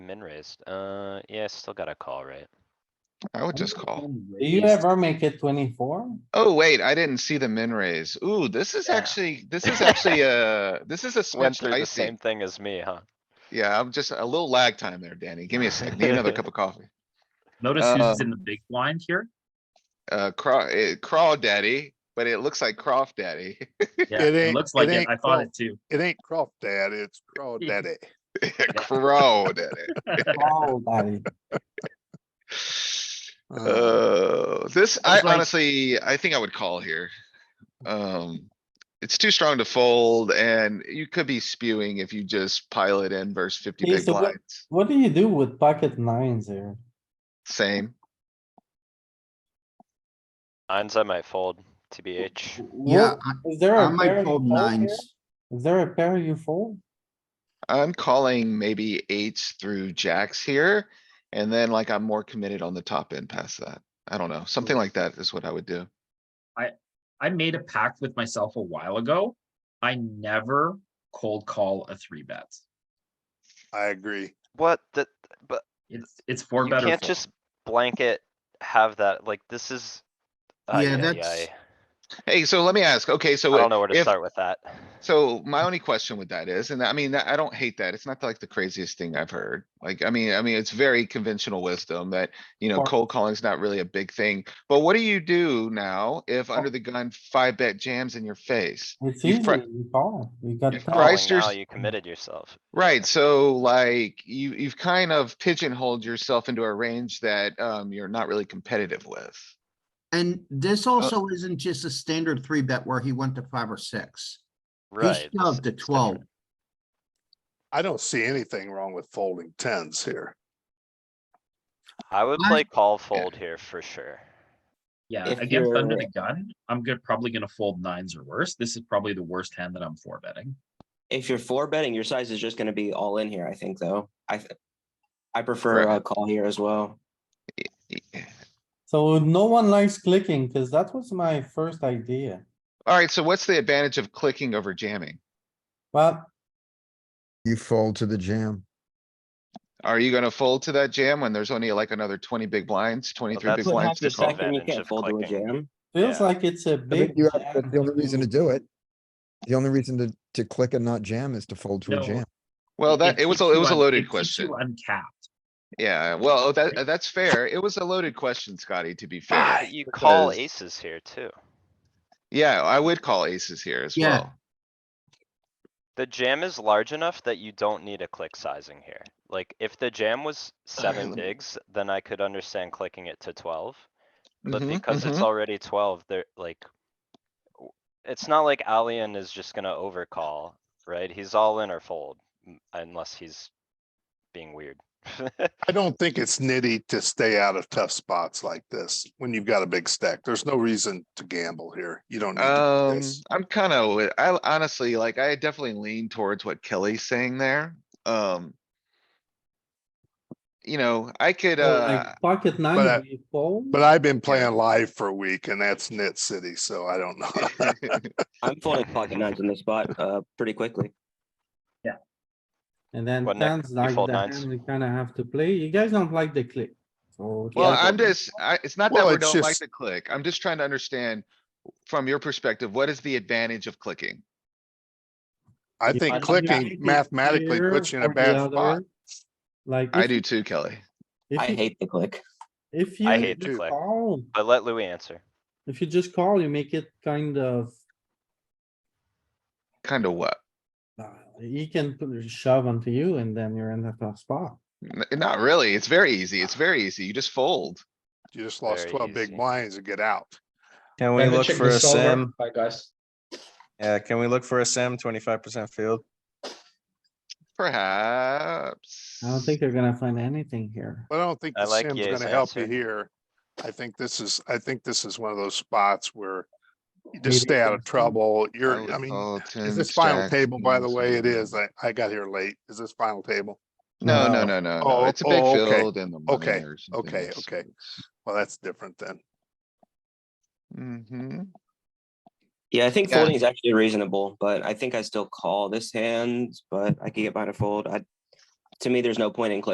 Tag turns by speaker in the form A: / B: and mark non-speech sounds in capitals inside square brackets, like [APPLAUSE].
A: min raised. Uh, yeah, still got a call, right?
B: I would just call.
C: Do you ever make it twenty-four?
B: Oh, wait, I didn't see the min raise. Ooh, this is
A: Yeah.
B: actually, this is actually a, this is a
A: Went
B: switch
A: through the
B: dicey.
A: same thing as me, huh?
B: Yeah, I'm just a little lag time there, Danny. Give me a sec. Need another cup of coffee.
D: Notice
B: Uh,
D: who's in the big blind here.
B: Uh, craw, eh, craw daddy, but it looks like croft daddy. [LAUGHS]
D: Yeah,
E: It
D: it
E: ain't-
D: looks like
E: it
D: it.
E: ain't
D: I thought
E: called-
D: it too.
E: It ain't Croft Dad, it's Craw Daddy.
B: Crow daddy.
C: Oh, buddy.
E: Uh,
B: Oh, this,
D: I
B: I
D: was like-
B: honestly, I think I would call here. Um, it's too strong to fold and you could be spewing if you just pile it in versus fifty
C: Hey,
B: big
C: so what-
B: blinds.
C: What do you do with pocket nines here?
B: Same.
A: Nines I might fold, TBH.
F: Yeah,
C: Is there
F: I
C: a
F: might
C: pair you
F: fold
C: fold here?
F: nines.
C: Is there a pair you fold?
B: I'm calling maybe eights through jacks here. And then like I'm more committed on the top end past that. I don't know. Something
A: Mm.
B: like that is what I would do.
D: I made a pact with myself a while ago. I never cold call a three bet.
E: I agree.
A: What the, but
D: It's it's four
A: you
D: better.
A: can't
D: fold.
A: just blanket have that, like, this is. ay,
F: Yeah,
A: ay,
F: that's-
A: ay.
B: Hey, so let me ask, okay, so.
A: I don't know where to
B: if-
A: start with that.
B: So my only question with that is, and I mean, I don't hate that. It's not like the craziest thing I've heard. Like, I mean, I mean, it's very conventional wisdom that, you know,
C: Or-
B: cold calling's not really a big thing. But what do you do now if
A: Oh.
B: under the gun five bet jams in your face?
C: It's
B: You
C: easy,
B: fr-
C: you call, you got.
B: You
C: that.
A: Calling
B: Christers-
A: now, you committed yourself.
B: Right, so like you, you've kind of pigeonholed yourself into a range that, um, you're not really competitive with.
F: And this also isn't just a standard three bet where he went to five or six. He
A: Right. this
F: shoved to
A: is different.
F: twelve.
E: I don't see anything wrong with folding tens here.
A: I would
F: I-
A: play call fold here for sure.
D: Yeah,
G: if
D: against under
G: you're-
D: the gun, I'm good. Probably gonna fold nines or worse. This is probably the worst hand that I'm four betting.
G: If you're four betting, your size is just gonna be all in here, I think, though. I, th- I prefer
B: Right.
G: a call here as well.
C: So no one likes clicking, cause that was my first idea.
B: Alright, so what's the advantage of clicking over jamming?
C: Well,
H: You fold to the jam.
B: Are you gonna fold to that jam when there's only like another twenty big blinds, twenty-three
A: that's
B: big
A: what
B: blinds to
A: happens
B: call?
A: second.
G: Reckon you
A: advantage
G: can't
A: of
G: fold to a
A: clicking.
G: jam.
C: feels
A: Yeah.
C: like it's a
H: I
C: big.
H: think you have,
C: jam
H: that's the only reason to
C: between-
H: do it. The only reason to, to click and not jam is to fold to
D: No.
H: a jam.
B: Well, that, it was,
D: keeps
B: a- it
D: you
B: was a
D: un- it
B: loaded
D: keeps you
B: question.
D: Uncapped.
B: Yeah, well, that, that's fair. It was a loaded question, Scotty, to be
A: Yeah,
B: fair.
A: but You call
B: because-
A: aces here too.
B: Yeah, I would call aces here as
F: Yeah.
B: well.
A: The jam is large enough that you don't need a click sizing here. Like, if the jam was seven
B: let me-
A: bigs, then I could understand clicking it to twelve. But
B: Mhm,
A: because it's
B: mhm.
A: already twelve, they're like. w- It's not like Alien is just gonna overcall, right? He's all in or fold, m- unless he's being weird. [LAUGHS]
E: I don't think it's nitty to stay out of tough spots like this when you've got a big stack. There's no reason to gamble here. You don't need to do
B: Um,
E: this.
B: I'm kind of, I honestly, like, I definitely lean towards what Kelly's saying there. Um. You know, I could,
C: So,
B: uh,
C: [LAUGHS] like, Pocket
E: I-
C: nine, you fold.
E: But I've been playing live for a week and that's nit city, so I don't
B: [LAUGHS]
E: know.
G: I'm folding pocket nines on the spot, uh, pretty quickly.
C: And then
A: What, Nick?
C: tens
A: You
C: like
A: fold
C: the
A: nines?
C: hand we kinda have to play. You guys don't like the click. So
B: well,
C: yeah.
B: I'm just, I, it's not that
E: Well,
B: we
E: it's
B: don't like
E: just-
B: to click. I'm just trying to understand. From your perspective, what is the advantage of clicking?
E: [LAUGHS] I
C: I
E: think
C: think
E: clicking
C: it's
E: mathematically
C: here
E: puts you in
C: or
E: a
C: the
E: bad spot.
C: other. Like.
B: I
C: if-
B: do too, Kelly.
C: if
G: I
C: you-
G: hate the click.
C: If you.
A: I hate the
C: just
A: click.
C: call,
A: But let Louis answer.
C: If you just call, you make it kind of,
B: Kinda what?
C: uh, he can put a shove onto you and then you're in the tough spot.
B: N- Not really. It's very easy. It's very easy. You just fold.
E: You just lost
A: Very
E: twelve big
A: easy.
E: blinds and get out.
I: Can we
J: Time to
I: look
J: check
I: for a
J: this over.
I: sim?
J: Bye, guys.
I: Yeah, can we look for a sim twenty-five percent field?
B: Perhaps.
C: I don't think they're gonna find anything here.
E: But I don't think
A: I
E: the
A: like
E: sim's
A: Ye's
E: gonna help you
A: answer.
E: here. I think this is, I think this is one of those spots where you
C: Maybe
E: just stay out of
C: it's-
E: trouble.
B: would
E: You're, I mean,
B: call
E: is
B: 10s,
E: this final
B: jacks,
E: table, by the way? It
B: kings.
E: is. I, I got here late. Is this final table?
B: No, no,
I: No.
B: no, no, no.
E: Oh,
B: It's a big
E: oh, okay.
B: field and the money
E: Okay,
B: or something.
E: okay, okay. Well, that's different then.
B: Mm-hmm.
G: Yeah, I think
B: Yeah.
G: folding is actually reasonable, but I think I still call this hand, but I could get by to fold. I, to me, there's no point in clicking.